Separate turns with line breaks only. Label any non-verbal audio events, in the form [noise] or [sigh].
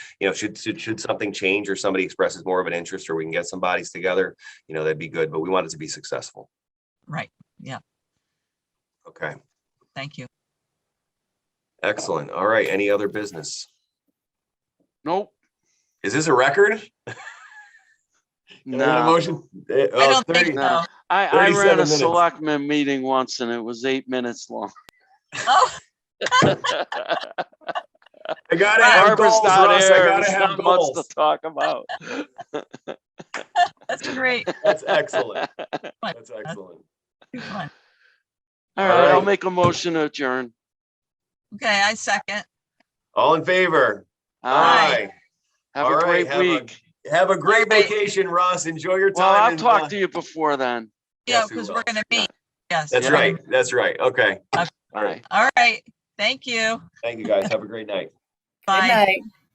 you know, should, should, should something change or somebody expresses more of an interest or we can get some bodies together, you know, that'd be good, but we want it to be successful.
Right,
Okay,
thank you.
excellent. All right, any other business?
Nope.
Is this a record? Can I get a
No,
Motion. Eh,
I
oh,
don't think
30
so.
no. I, I
37
ran a
minutes.
selectmen meeting once and it was eight minutes long.
[laughs] Oh,
I gotta have
Barbara's
goals,
not
Russ. I
here.
gotta
There's
have
not much to
goals.
talk
[laughs]
about.
that's great.
That's excellent.
[laughs]
Fun.
That's excellent.
Too fun.
All right, I'll
right.
make a motion to adjourn.
Okay, I second.
All in favor?
Aye.
Aye.
Have
All
a
right,
great
have a
week.
Have a great
Wait.
vacation, Russ. Enjoy your time.
Well, I'll
and, uh,
talk to you before then.
Yeah,
Yes, we
because
will.
we're gonna meet. Yes.
That's
Yeah.
right. That's right. Okay.
All right.
All right, thank you.
Thank you, guys. Have a great night.
Bye.